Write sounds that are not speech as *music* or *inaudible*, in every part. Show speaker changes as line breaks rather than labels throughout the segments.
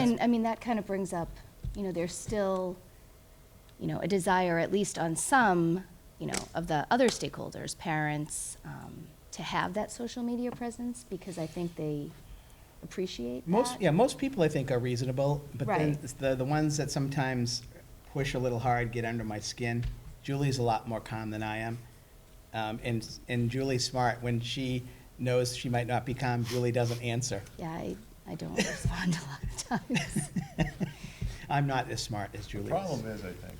And, I mean, that kind of brings up, you know, there's still, you know, a desire, at least on some, you know, of the other stakeholders, parents, um, to have that social media presence, because I think they appreciate that.
Most, yeah, most people I think are reasonable, but then
Right.
it's the, the ones that sometimes push a little hard, get under my skin. Julie's a lot more calm than I am. Um, and, and Julie's smart. When she knows she might not be calm, Julie doesn't
*laughs*
answer.
Yeah, I, I don't *laughs* respond a lot of times.
I'm not as smart as Julie
The
is.
problem is, I think,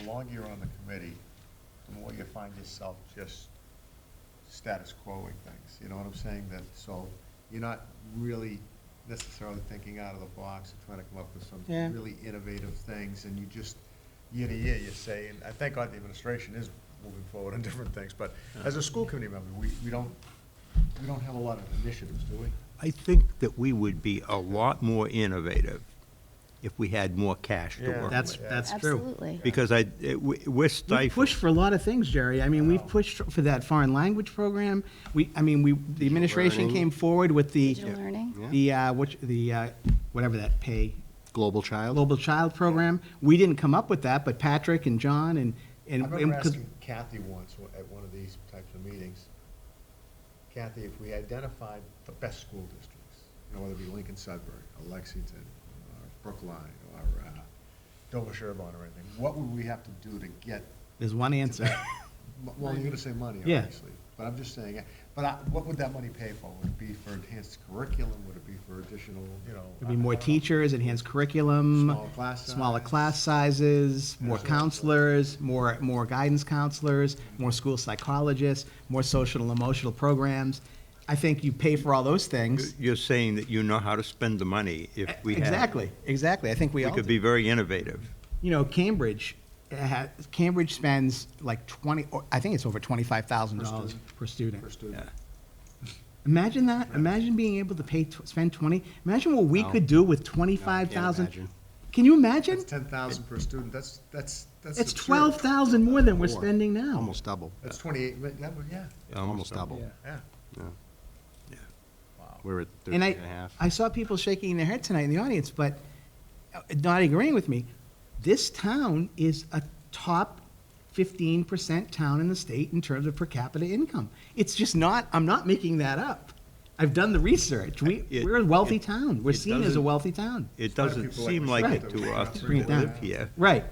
the longer you're on the committee, the more you find yourself just status quoing things, you know what I'm saying? That, so you're not really necessarily thinking out of the box and trying to come up with some
Yeah.
really innovative things, and you just, year to year, you say, and I thank God the administration is moving forward on different things, but as a school committee member, we, we don't, we don't have a lot of initiatives, do we?
I think that we would be a lot more innovative if we had more cash to
Yeah.
work
That's,
with.
that's true.
Absolutely.
Because I, it- we- we're
We pushed
stifled.
for a lot of things, Jerry. I mean, we've pushed for that foreign language program. We, I mean, we, the administration came forward with the.
Digital learning.
The, uh, which, the, uh, whatever that pay,
Global Child?
Global Child Program. We didn't come up with that, but Patrick and John and,
I
and.
remember
and 'cause-
asking Kathy once wa- at one of these types of meetings, Kathy, if we identified the best school districts, you know, whether it be Lincoln Sudbury, or Lexington, or Brookline, or uh, Dover Sherburne or anything, what would we have to do to get?
There's one
to *laughs*
answer.
that? M- Well, you're gonna say money,
Yeah.
obviously, but I'm just saying, but I- what would that money pay for? Would it be for enhanced curriculum? Would it be for additional, you know? uh,
There'd be
I- I
more
don't know.
teachers, enhanced curriculum.
Smaller class
Smaller
size.
class sizes, more
Yeah.
counselors, more, more guidance counselors, more school psychologists, more social and emotional programs. I think you pay for all those things.
You're saying that you know how to spend the money if we had.
Exactly, exactly. I think we
We
all
could
do.
be very innovative.
You know, Cambridge, ha- Cambridge spends like twenty, or I think it's over twenty-five thousand dollars per
For
student.
students.
Imagine that, imagine being able to pay, tw- spend twenty, imagine what we could do with twenty-five thousand.
imagine.
Can you imagine?
That's ten thousand per student, that's, that's, that's.
It's
absurd.
twelve thousand more than we're
More.
spending now.
Almost double,
That's twenty-eight, mi- that would- yeah,
almost double.
yeah.
We're at thirteen
And
and
I,
a half.
I saw people shaking their head tonight in the audience, but uh, not agreeing with me. This town is a top fifteen percent town in the state in terms of per capita income. It's just not, I'm not making that up. I've done the research. We,
It-
we're a wealthy
it-
town. We're
it
seen as a
doesn't-
wealthy town.
It
lot of
doesn't
people like
seem
to
like it
Right.
to us
Bring
that
it down.
live here,
Right.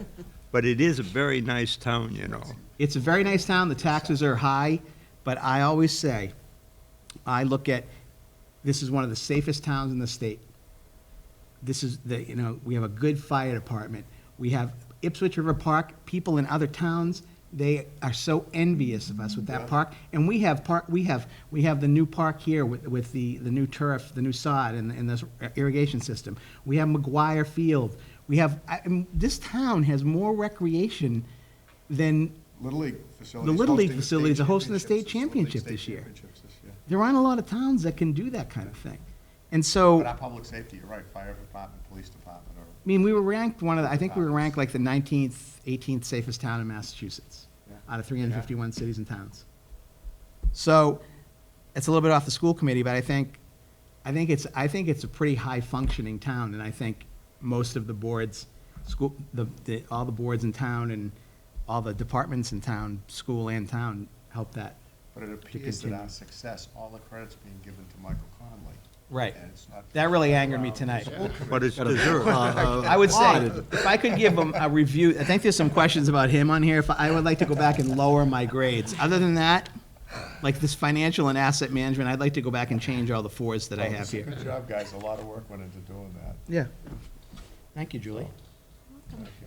but it is a very nice town, you know.
It's a very nice town, the taxes are high, but I always say, I look at, this is one of the safest towns in the state. This is the, you know, we have a good fire department. We have Ipswich River Park, people in other towns, they are so envious of us with that park. And we have park, we have, we have the new park here with, with the, the new turf, the new sod and, and this irrigation system. We have McGuire Field. We have, I, I'm- this town has more recreation than
Little League facilities.
Little League
hosting state
facilities are hosting the state championship
championships.
this year.
Little League state championships this year.
there aren't a lot of towns that can do that kind of thing. And so,
But our
I
public safety, you're right, fire department, police department, or,
mean, we were ranked one of the, I think we were ranked like the 19th, 18th safest town in Massachusetts
Yeah.
out of 351 cities and towns. So it's a little bit off the school committee, but I think, I think it's, I think it's a pretty high functioning town. And I think most of the boards, school, the, the, all the boards in town and all the departments in town, school and town, help that.
but it appears that
continue.
our success, all the credit's being given to Michael Conley.
Right.
And it's not.
That really angered me
Well,
tonight.
it's all
But it's
Uh,
deserved. *laughs*
uh,
Um, I would say,
applauded.
if I could give him a review, I think there's some questions about him on here, if I would like to go back and lower my grades. Other than that, like this financial and asset management, I'd like to go back and change all the fours that I have here.
Good job, guys, a lot of work went into doing that.
Yeah. Thank you, Julie.
Thank you.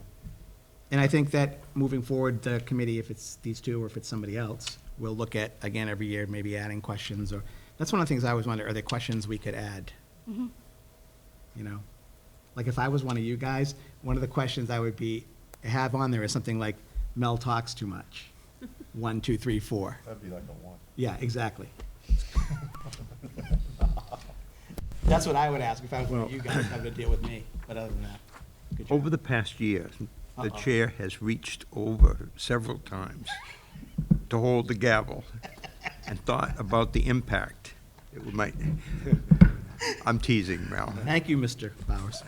And I think that moving forward, the committee, if it's these two or if it's somebody else, will look at, again, every year, maybe adding questions or, that's one of the things I always wonder, are there questions we could add? You know? Like if I was one of you guys, one of the questions I would be, have on there is something like, Mel talks too much. One, two, three, four.
That'd be like a one.
Yeah, exactly. That's what I would ask if I was one of you guys having to deal with me, but other than that. good job.
Over the past year, the
Uh-oh.
chair has reached over several times
*laughs*
to hold the gavel and thought about the impact it might. I'm teasing, Mel.
Thank you, Mr. Bowers.